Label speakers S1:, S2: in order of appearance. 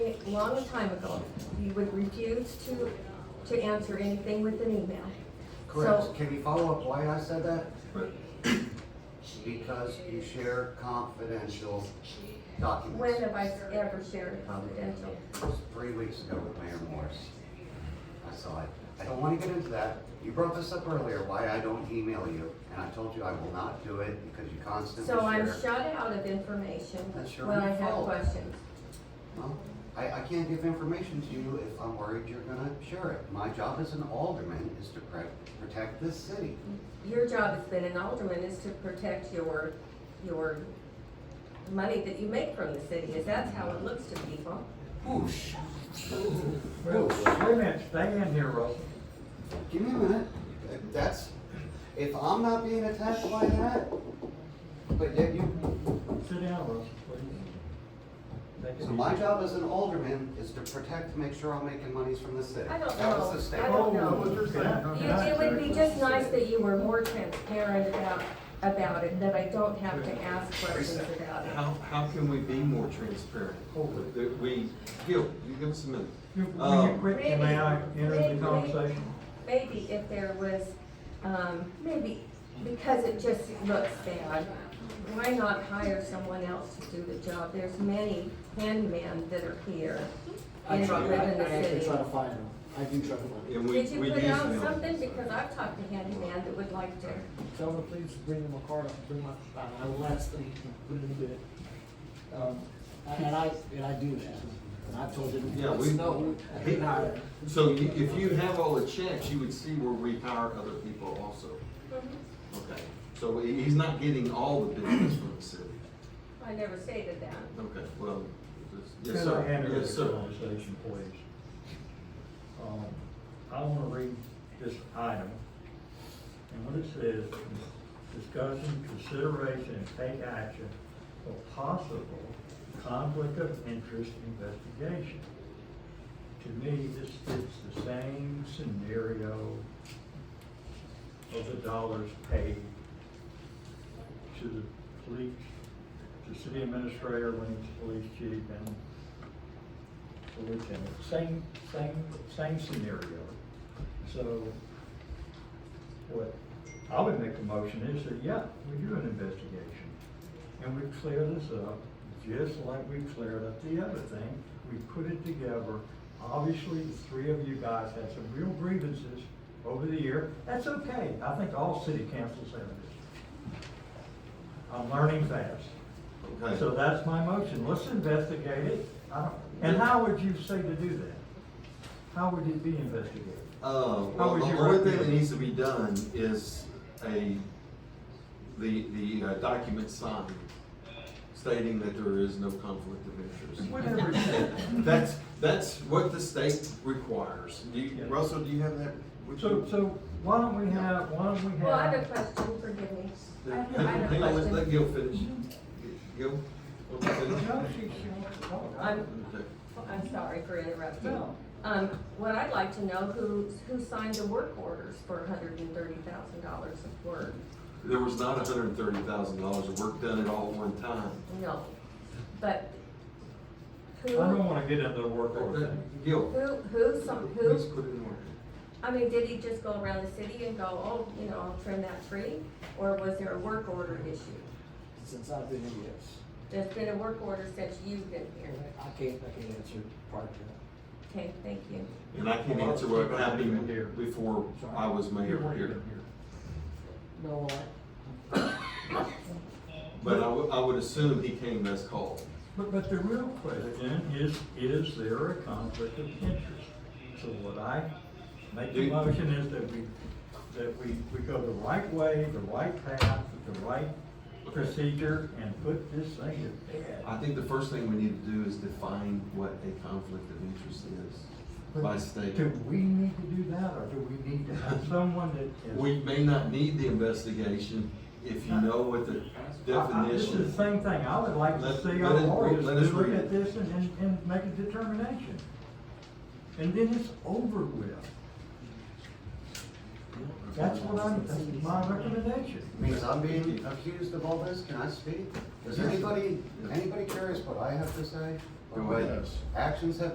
S1: a long time ago, you would refuse to, to answer anything with an email. So-
S2: Correct. Can you follow up why I said that?
S3: Right.
S2: Because you share confidential
S1: When
S2: documents.
S1: have I ever shared confidential?
S2: It was three weeks ago with Mayor Morris. I saw it. I don't want to get into that. You brought this up earlier, why I don't email you, and I told you I will not do it because you constantly
S1: So I'm
S2: share.
S1: shut out of information
S2: That's your
S1: when I
S2: own
S1: have
S2: fault.
S1: questions.
S2: Well, I, I can't give information to you if I'm worried you're gonna share it. My job as an alderman is to pre- protect this city.
S1: Your job as been an alderman is to protect your, your money that you make from the city, is that's how it looks to people.
S2: Whoosh.
S3: Wait a minute, stay in here, Russell.
S2: Give me a minute. That's, if I'm not being attacked by that, but yet you,
S3: Sit down, Russell, please. Take a
S2: so my
S3: seat.
S2: job as an alderman is to protect, make sure I'm making monies from the city.
S1: I don't
S2: That
S1: know.
S2: was the
S1: I
S2: statement.
S1: don't know.
S3: Oh, what you're saying,
S1: You-
S3: okay.
S1: It would be just nice that you were more transparent about, about it, that I don't have to ask questions about it.
S4: How, how can we be more transparent?
S3: Hold it.
S4: That we, Gil, you give us a minute.
S3: You- Will you
S4: Um,
S3: quit, and may I enter
S1: Maybe-
S3: the
S1: maybe-
S3: conversation?
S1: Maybe if there was, um, maybe, because it just looks bad, why not hire someone else to do the job? There's many handmen that are here.
S5: I
S1: and
S5: try, I,
S1: live in the
S5: I actually
S1: city.
S5: try to find them. I do try to find them.
S4: And we,
S1: Did you
S4: we use
S1: put out
S4: them.
S1: something? Because I've talked to handyman that would like to.
S5: Tell them, please bring them a card, I'll bring my, I I will ask them, put it in the bid. Um, and and I, and I do that. And I told them,
S4: Yeah, we-
S5: no, I didn't hire them.
S4: So you- if you have all the checks, you would see where we hire other people also. Okay, so he- he's not getting all the business from the city.
S1: I never stated that.
S4: Okay, well, this- yes,
S3: Can I
S4: sir,
S3: enter
S4: yes,
S3: the
S4: sir.
S3: conversation, please? Um, I want to read this item. And what it says, discussion, consideration, and take action for possible conflict of interest investigation. To me, this fits the same scenario of the dollars paid to the police, to city administrator when he's police chief and the lieutenant. Same, same, same scenario. So what I would make the motion is that, yeah, we do an investigation. And we clear this up, just like we cleared up the other thing. We put it together. Obviously, the three of you guys had some real grievances over the year. That's okay. I think all city councils have it. I'm learning fast. So
S4: Okay,
S3: that's my motion, let's investigate it. I don't- And how would you say to do that? How would it be investigated?
S4: uh,
S3: How
S4: well,
S3: would
S4: the
S3: you
S4: only thing that
S3: recommend?
S4: needs to be done is a, the, the uh, document signed stating that there is no conflict of interest.
S3: Whatever it is.
S4: That's, that's what the state requires. Do
S3: Yeah.
S4: you, Russell, do you have that? with
S3: So,
S4: you?
S3: so why don't we have, why don't we have?
S1: Well, I have a question, forgive me. I have I have a
S4: Hang on, let- let
S1: question.
S4: Gil finish. Gil? want to finish?
S3: No, she, she wants to talk.
S1: I'm,
S4: Okay.
S1: I'm sorry for interrupting.
S3: No.
S1: Um, what I'd like to know, who, who signed the work orders for hundred and thirty thousand dollars of work?
S4: There was not hundred and thirty thousand dollars of work done at all at one time.
S1: No, but
S3: I
S1: who,
S3: don't
S1: who,
S3: wanna get into the work order
S4: Okay,
S3: thing.
S4: Gil,
S1: who, some,
S4: please
S1: who,
S4: put it in order.
S1: I mean, did he just go around the city and go, oh, you know, I'll trim that tree? Or was there a work order issue?
S5: Since I've been here, yes.
S1: There's been a work order since you've been here.
S5: I can't, I can't answer part of that.
S1: Okay, thank you.
S4: And I can answer what happened before I was
S3: You
S4: mayor
S3: weren't
S4: here.
S3: even here.
S5: No, I,
S4: But I would, I would assume he came as called.
S3: But, but the real question is, is there a conflict of interest? So what I make the
S4: Do-
S3: motion is that we, that we, we go the right way, the right path, the right procedure, and put this thing to bed.
S4: I think the first thing we need to do is define what a conflict of interest is by state.
S3: Do we need to do that, or do we need to have someone that is?
S4: We may not need the investigation if you know what the
S3: I- I- This is
S4: definition.
S3: the same thing, I would like to
S4: Let-
S3: see
S4: let
S3: our
S4: us re-
S3: lawyers
S4: let us
S3: look
S4: read
S3: at
S4: it.
S3: this and, and, and make a determination. And then it's over with, that's what I'm, my recommendation.
S2: Means I'm being accused of all this, can I speak? Is anybody, anybody curious what I have to say? Or what actions have